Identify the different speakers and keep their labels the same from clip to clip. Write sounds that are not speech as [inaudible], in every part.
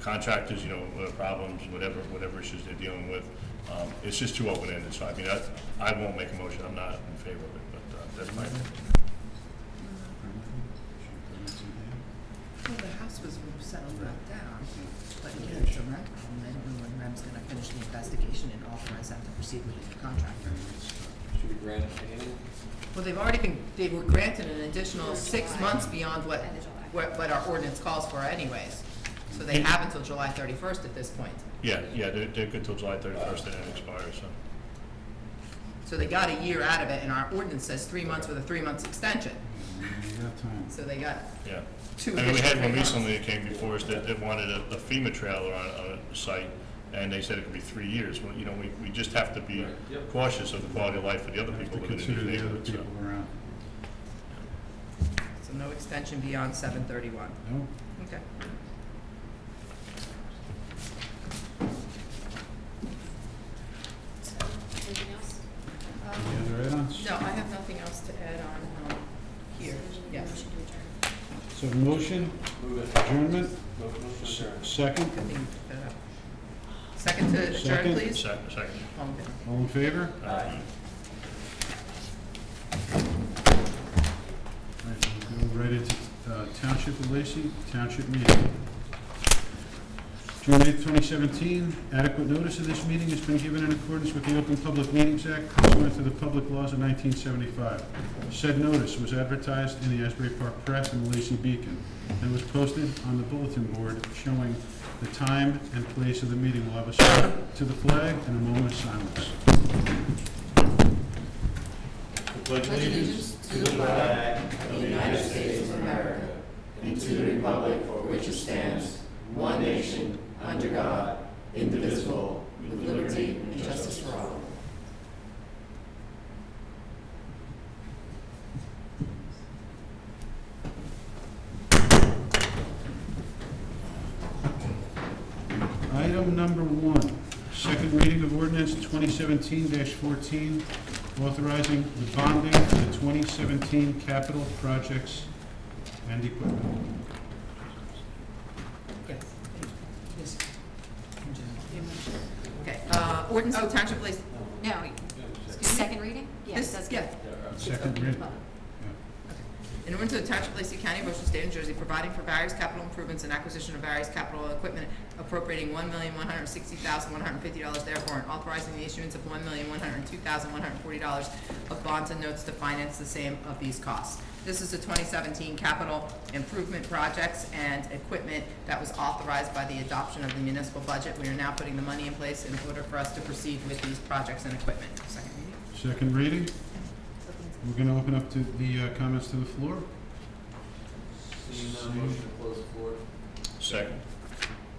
Speaker 1: contractors, you know, uh, problems, whatever, whatever issues they're dealing with. Um, It's just too open-ended, so I mean, I, I won't make a motion, I'm not in favor of it, but uh, that's my opinion.
Speaker 2: Well, the house was settled back down, but again, it's a rent problem, I don't know when REM's gonna finish the investigation and authorize them to proceed with the contractor.
Speaker 3: Should we grant it annually?
Speaker 2: Well, they've already been, they were granted an additional
Speaker 4: Till
Speaker 2: six
Speaker 4: July.
Speaker 2: months beyond what,
Speaker 4: End of July.
Speaker 2: what, what our ordinance calls for anyways. So they have until July thirty-first at this point.
Speaker 1: Yeah, yeah, they're, they're good till July thirty-first, and it expires, so.
Speaker 2: So they got a year out of it, and our ordinance says three months with a three-month extension, so they got
Speaker 1: Yeah.
Speaker 2: two
Speaker 1: I mean, we had one
Speaker 2: additional three months.
Speaker 1: recently that came before us that, that wanted a a FEMA trailer on, on a site, and they said it could be three years. Well, you know, we, we just have to be
Speaker 3: Right, yep.
Speaker 1: cautious of the quality of life for the other
Speaker 5: Have
Speaker 1: people
Speaker 5: to
Speaker 1: living
Speaker 5: consider
Speaker 1: in the
Speaker 5: the other
Speaker 1: neighborhood, so.
Speaker 5: people around.
Speaker 2: So no extension beyond seven thirty-one,
Speaker 5: No,
Speaker 2: okay.
Speaker 4: So, anything else? Uh,
Speaker 2: Um,
Speaker 5: any other add-ons?
Speaker 2: No, I have nothing else to add on, um, here,
Speaker 4: So,
Speaker 2: yes.
Speaker 4: motion to adjourn.
Speaker 5: So motion,
Speaker 3: Move it,
Speaker 5: adjournment,
Speaker 3: Mo- motion to adjourn.
Speaker 5: second,
Speaker 2: Good thing you put that up. uh, Second to adjourn,
Speaker 5: Second.
Speaker 2: please. Oh,
Speaker 1: Second, second.
Speaker 2: All in favor?
Speaker 5: all in favor?
Speaker 3: Aye.
Speaker 5: All right, we'll go right into uh, Township of Lacey, Township meeting. June eighth, twenty seventeen, adequate notice of this meeting has been given in accordance with the Open Public Meetings Act pursuant to the public laws of nineteen seventy-five. Said notice was advertised in the Asbury Park Press and the Lacey Beacon, and was posted on the bulletin board showing the time and place of the meeting. We'll have a salute to the flag and a moment of silence. Item number one, second reading of ordinance twenty seventeen fourteen, authorizing the bonding for the twenty seventeen capital projects and equipment.
Speaker 2: Yes. Yes. Okay, uh, ordinance of the Township of Lacey.
Speaker 4: No, second reading? Yes,
Speaker 2: This-
Speaker 4: that's good.
Speaker 2: yeah.
Speaker 5: Second reading.
Speaker 2: In order to the Township of Lacey County, Ocean State, New Jersey, providing for various capital improvements and acquisition of various capital equipment appropriating one million one hundred sixty thousand one hundred fifty dollars therefore, and authorizing the issuance of one million one hundred two thousand one hundred forty dollars of bonds and notes to finance the same of these costs. This is the twenty seventeen capital improvement projects and equipment that was authorized by the adoption of the municipal budget. We are now putting the money in place in order for us to proceed with these projects and equipment. Second reading?
Speaker 5: Second reading, we're gonna open up to the uh, comments to the floor.
Speaker 3: Seeing none, motion to close the floor.
Speaker 1: Second.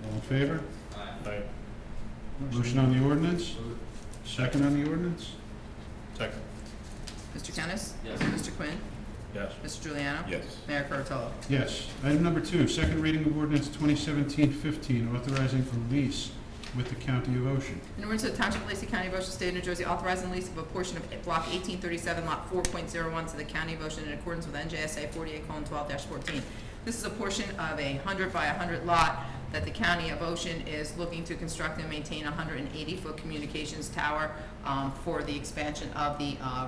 Speaker 5: All in favor?
Speaker 3: Aye.
Speaker 1: Aye.
Speaker 5: Motion on the ordinance,
Speaker 3: Move it.
Speaker 5: second on the ordinance?
Speaker 1: Second.
Speaker 2: Mr. Kennis?
Speaker 3: Yes.
Speaker 2: Mr. Quinn?
Speaker 1: Yes.
Speaker 2: Mr. Juliano?
Speaker 1: Yes.
Speaker 2: Mayor Kurtolo?
Speaker 5: Yes. Item number two, second reading of ordinance 2017-15, authorizing a lease with the County of Ocean.
Speaker 2: In order to the Township of Lacey County, Ocean State, New Jersey, authorizing lease of a portion of Block 1837, Lot 4.01 to the County of Ocean in accordance with NJSA 48:12-14. This is a portion of a 100 by 100 lot that the County of Ocean is looking to construct and maintain a 180-foot communications tower um, for the expansion of the uh,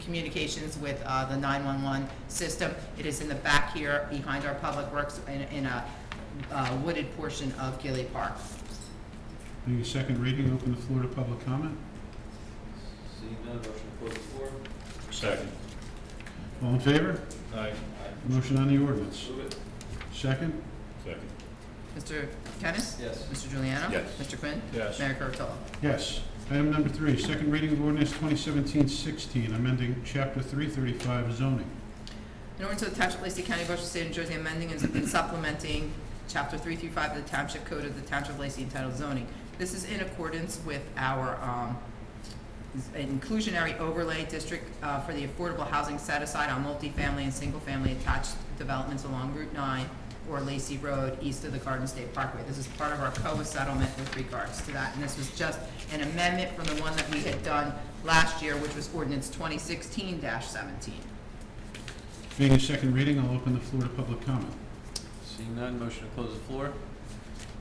Speaker 2: communications with uh, the 911 system. It is in the back here, behind our Public Works, in- in a uh, wooded portion of Gilly Park.
Speaker 5: Being a second reading, open the floor to public comment.
Speaker 3: Seeing none, motion to close the floor.
Speaker 1: Second.
Speaker 5: All in favor?
Speaker 1: Aye.
Speaker 3: Aye.
Speaker 5: Motion on the ordinance.
Speaker 3: Move it.
Speaker 5: Second?
Speaker 1: Second.
Speaker 2: Mr. Kennis?
Speaker 3: Yes.
Speaker 2: Mr. Juliano?
Speaker 1: Yes.
Speaker 2: Mr. Quinn?
Speaker 1: Yes.
Speaker 2: Mayor Kurtolo?
Speaker 5: Yes. Item number three, second reading of ordinance 2017-16, amending Chapter 335 zoning.
Speaker 2: In order to the Township of Lacey County, Ocean State, New Jersey, amending and [coughs] supplementing Chapter 335 of the Township Code of the Township of Lacey entitled zoning. This is in accordance with our um, inclusionary overlay district uh, for the affordable housing set aside on multifamily and single-family attached developments along Route 9 or Lacey Road east of the Garden State Parkway. This is part of our COA settlement with regards to that, and this was just an amendment from the one that we had done last year, which was ordinance 2016-17.
Speaker 5: Being a second reading, I'll open the floor to public comment.
Speaker 3: Seeing none, motion to close the floor.